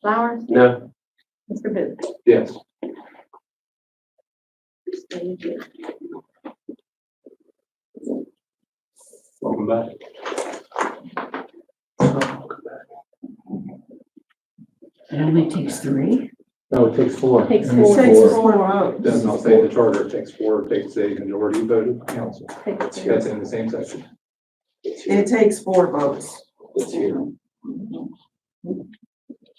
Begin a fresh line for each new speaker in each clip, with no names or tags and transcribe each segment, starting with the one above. Flowers,
No.
Mr. Booth.
Yes.
Thank you.
Welcome back.
It only takes three?
No, it takes four.
Takes
It
four.
takes four.
Four.
It Does not say the charter, it takes four, it takes a majority vote of council.
Takes two.
That's in the same section.
It takes four votes.
It's here. No, it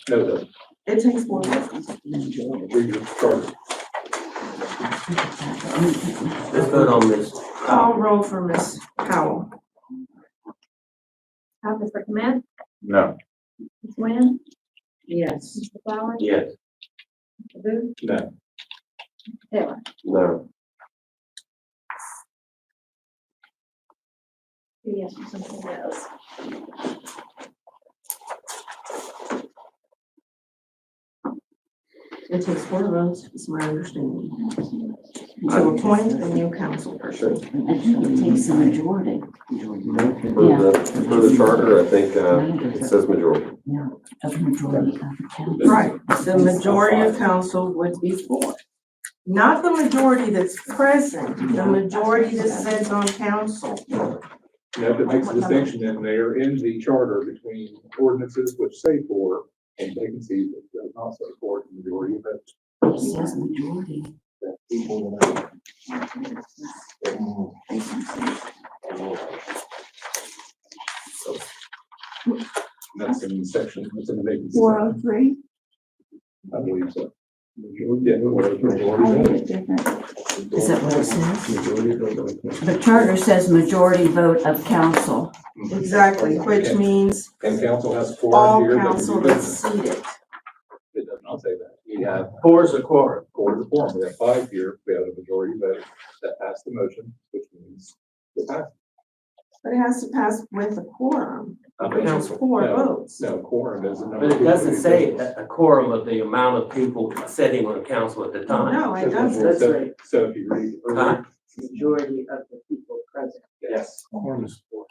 doesn't.
It takes four votes.
Read your charter.
Let's vote on this.
Call roll for Ms. Powell.
Uh, Mr. Command,
No.
Ms. Nguyen,
Yes.
Mr. Flowers,
Yes.
Mr. Booth,
No.
Taylor.
No.
Yes, or something else.
It takes four votes, is my understanding. To appoint a new council person.
I think it takes a majority.
For the, for the charter, I think, uh, it
Of
says majority.
the majority of the council.
Right, the majority of council would be four. Not the majority that's present, the majority that sits on council.
No, but it makes a distinction in there in the charter between ordinances which say four and vacancies that does not say four in the majority of votes.
It says majority.
That people will know. That's in section, that's in the vacancy.
Four oh three?
I believe so. Yeah, whatever, majority
Is that what it says?
vote.
The charter says majority vote of council.
Exactly, which means
Mm-hmm. And council has four
all
here. but
council
you-
that's seated.
It does not say that. We have
Four is a quorum.
four to four, we have five here, we have a majority vote that passed the motion, which means it passed.
But it has to pass with a quorum,
I
which
mean,
is four
No.
votes.
No, quorum doesn't.
But it doesn't say a a quorum of the amount of people sitting on council at the time.
No, it doesn't.
That's right. So if you read.
Huh?
majority of the people present.
Yes. Quorum is four.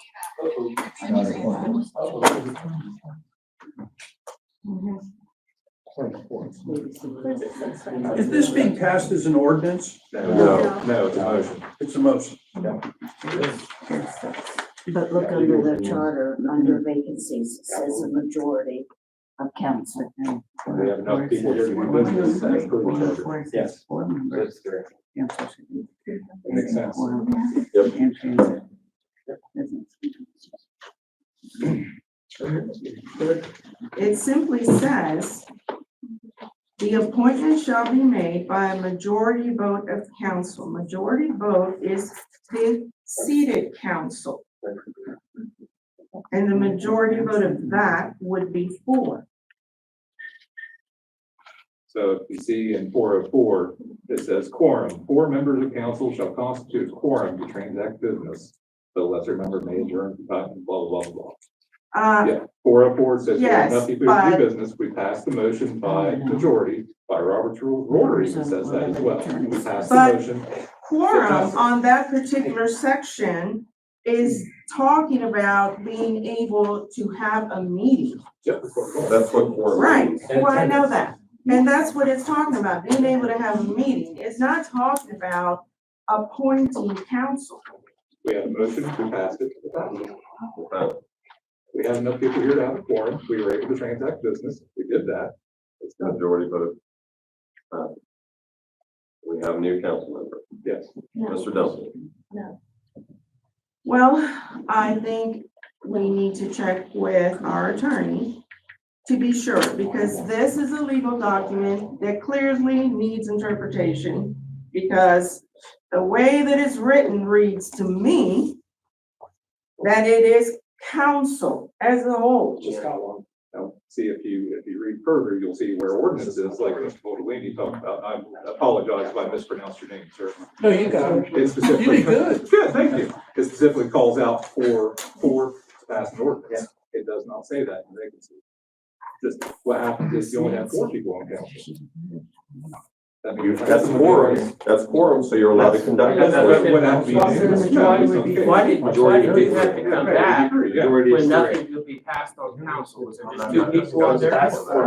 Quorum is four.
Where's it six, right?
Is this being passed as an ordinance?
No, no, it's a motion.
It's a motion.
But look under the charter, under vacancies, it says a majority of council.
We have enough people here to do business as per the charter. Yes. That's correct. Makes sense.
It simply says, "The appointment shall be made by a majority vote of council." Majority vote is the seated council. And the majority vote of that would be four.
So if you see in four oh four, it says quorum, four members of council shall constitute a quorum to transact business. The lesser member may adjourn, blah, blah, blah, blah.
Uh,
Yeah, four oh four says we have
Yes,
nothing to
but- Oh,
do business, we passed the motion by majority, by Robert's rule, Rory even says that as well. We passed the
But-
motion,
Quorum on that particular section is talking about being able to have a meeting.
Jeff, that's what we're going.
That's what quorum.
Right,
And
well, I know
attendance.
that. And that's what it's talking about, being able to have a meeting. It's not talking about appointing council.
we had a motion, we passed it. we passed it. We had enough people here to have a quorum, we were able to transact business, we did that. It's done,
Majority vote. Uh, We have a new council member,
yes.
Mr. Nelson.
Well, I think we need to check with our attorney to be sure, because this is a legal document that clearly needs interpretation. Because the way that it's written reads to me that it is council as a whole.
Just got one. Now, see if you, if you read further, you'll see where ordinances like Mr. Boldini talked about, I apologize if I mispronounced your name, sir.
No, you got it.
It
You
specifically.
did good.
Good, thank you. It specifically calls out for, for to pass an ordinance. It does not say that in vacancy. Just what happens is you only have four people on council. That means-
That's quorum, that's quorum, so you're allowed to conduct.
That's
business.
what, what that means.
Why
would- why would be- why did- why did you have to come back
Yeah.
When nothing could be passed on council, was there just two people on there?